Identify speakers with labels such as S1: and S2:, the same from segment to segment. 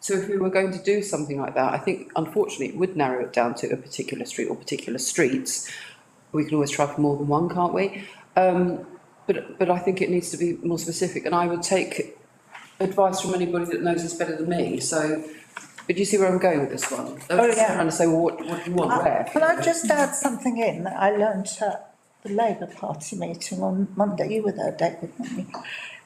S1: So if we were going to do something like that, I think unfortunately it would narrow it down to a particular street or particular streets. We can always try for more than one, can't we? Um, but, but I think it needs to be more specific and I would take advice from anybody that knows this better than me, so. But do you see where I'm going with this one?
S2: Oh, yeah. Uh,
S1: Trying to say, well, what, what do you want, where?
S2: Can I just add something in that I learnt at the Labour Party meeting on Monday, you were there, David, weren't you?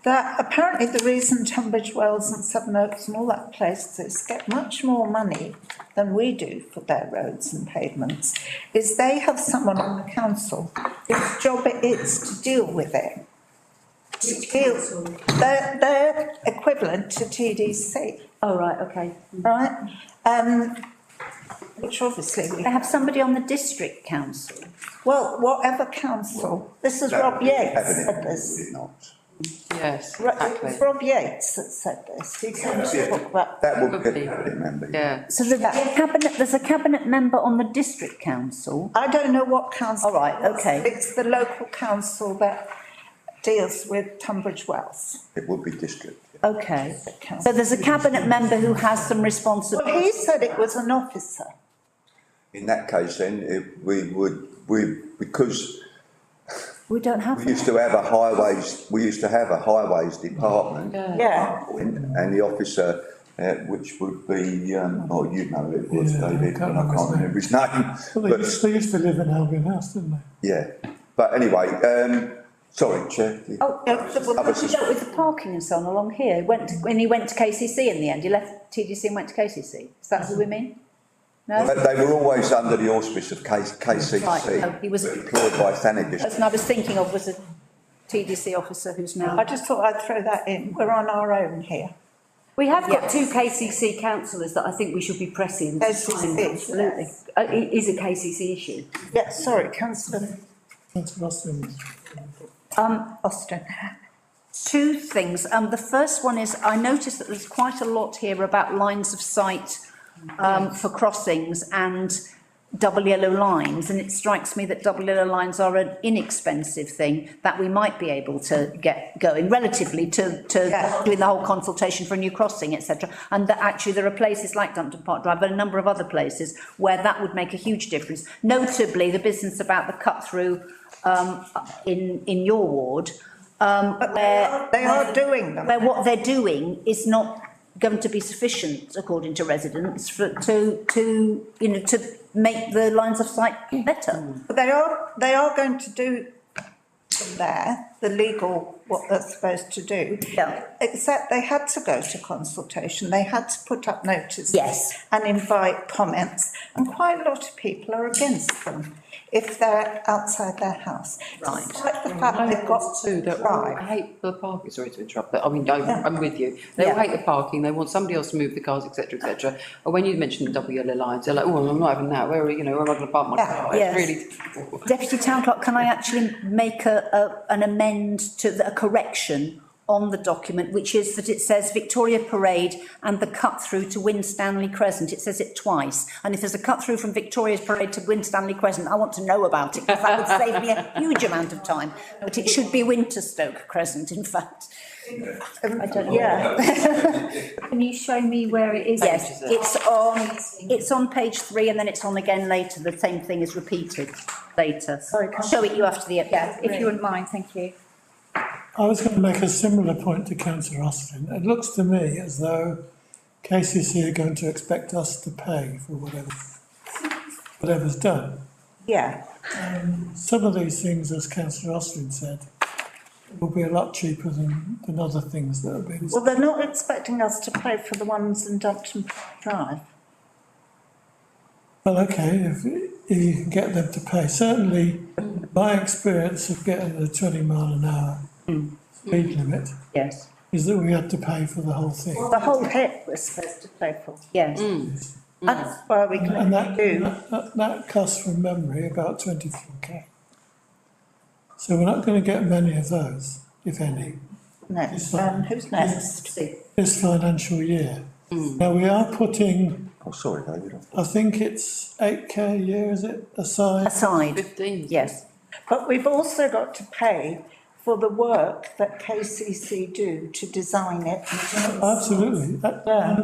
S2: That apparently the reason Tunbridge Wells and Seven Oaks and all that places get much more money than we do for their roads and pavements is they have someone on the council whose job it is to deal with it. To deal, they're, they're equivalent to TDC,
S3: Oh, right, okay.
S2: right? Um, which obviously we
S3: They have somebody on the district council.
S2: Well, whatever council, this is
S4: No,
S2: Rob
S4: we
S2: Yates
S4: haven't,
S2: said
S4: we
S2: this.
S4: did not.
S1: Yes,
S2: Ro- It was
S1: exactly.
S2: Rob Yates that said this, he came
S4: Yeah.
S2: to talk about.
S4: That would
S1: Could be.
S4: be a cabinet member.
S1: Yeah,
S3: So the
S2: Yeah.
S3: the cabinet, there's a cabinet member on the district council.
S2: I don't know what council.
S3: All right,
S2: it was.
S3: okay.
S2: It's the local council that deals with Tunbridge Wells.
S4: It would be district.
S3: Okay. So there's a cabinet member who has some
S2: Well,
S3: responsibility.
S2: he said it was an officer.
S4: In that case then, it, we would, we, because
S3: We don't have
S4: we
S3: that.
S4: used to have a highways, we used to have a highways department.
S1: Yeah.
S2: Yeah.
S4: And the officer, uh, which would be, um, oh, you know who it was,
S5: Yeah, I
S4: David, but I
S5: can't
S4: can't remember his name.
S5: Well, they used,
S4: But,
S5: they used to live in Albion House, didn't they?
S4: yeah, but anyway, um, sorry, Chair. the-
S3: Oh,
S2: Yeah, the- well,
S4: Others
S3: He
S4: is-
S3: dealt with the parking and so on along here, went, to- and he went to KCC in the end, he left TDC and went to KCC, is that who we mean? No?
S4: They they were always under the auspice of K-
S3: Right, no,
S4: KCC,
S3: he was-
S4: employed by Thanet District.
S3: Person I was thinking of was a TDC officer who's
S2: I
S3: now.
S2: just thought I'd throw that in, we're on our own here.
S6: We have got two KCC councillors that I think we should be pressing. to
S2: KCC,
S6: sign, Absolutely.
S2: yes.
S6: Uh, It is a KCC issue.
S2: Yeah, sorry, councillor
S5: Councillor Austin.
S2: Austin.
S3: Two things, um, the first one is, I noticed that there's quite a lot here about lines of sight um, for crossings and double yellow lines, and it strikes me that double yellow lines are an inexpensive thing that we might be able to get going relatively to, to
S2: Yeah.
S3: doing the whole consultation for a new crossing, etc. And that actually there are places like Dumpton Park Drive, but a number of other places where that would make a huge difference. Notably, the business about the cut through um, in, in your ward, um,
S2: But they
S3: where,
S2: are, they are doing them.
S3: where what they're doing is not going to be sufficient, according to residents, for, to, to, you know, to make the lines of sight better.
S2: But They are, they are going to do there, the legal, what they're supposed to do.
S3: Yeah.
S2: Except they had to go to consultation, they had to put up notices.
S3: Yes.
S2: And invite comments, and quite a lot of people are against them if they're outside their house.
S3: Right.
S2: Despite the fact they've got
S1: Two,
S2: to
S1: they're all, I
S2: drive.
S1: hate the parking, sorry to interrupt, but I mean, I'm,
S2: Yeah.
S1: I'm with you. They all
S3: Yeah.
S1: hate the parking, they want somebody else to move the cars, et cetera, et cetera. And when you mentioned the double yellow lines, they're like, oh, I'm not having that, where are, you know, where am I gonna park my
S2: Yeah,
S1: car?
S3: yes.
S1: It's really difficult.
S3: Deputy Town Clerk, can I actually make a, a, an amend to, the- a correction on the document, which is that it says Victoria Parade and the cut through to Winstanley Crescent, it says it twice. And if there's a cut through from Victoria's Parade to Winstanley Crescent, I want to know about it, because that would save me a huge amount of time. But it should be Winterstoke Crescent, in fact.
S2: Um,
S3: I don't know.
S2: Yeah,
S6: Can you show me where it is?
S3: Yes, it's on, it's on page three and then it's on again later, the same thing is repeated later.
S2: Sorry,
S3: I'll show it you after the. Yeah,
S6: If you wouldn't mind, thank you.
S5: I was going to make a similar point to councillor Austin. It looks to me as though KCC are going to expect us to pay for whatever, whatever's done.
S2: yeah,
S5: Some of these things, as councillor Austin said, will be a lot cheaper than, than other things that have been.
S2: well, they're not expecting us to pay for the ones in Dumpton Park Drive.
S5: Well, okay, if, if you can get them to pay, certainly my experience of getting the twenty mile an hour speed limit
S3: Yes,
S5: is that we had to pay for the whole thing.
S2: The whole hit we're supposed to pay for,
S3: yes.
S2: that's why we can
S5: And that,
S2: only do.
S5: that- that, that costs from memory about twenty-four K. So we're not gonna get many of those, if any,
S2: Next, um, who's next?
S5: this financial year. Now, we are putting,
S4: Oh, sorry, David. I-
S5: I think it's eight K a year, is it, aside?
S3: Aside,
S1: Fifteen.
S3: yes.
S2: But we've also got to pay for the work that KCC do to design it.
S5: Absolutely, that,
S2: Yeah.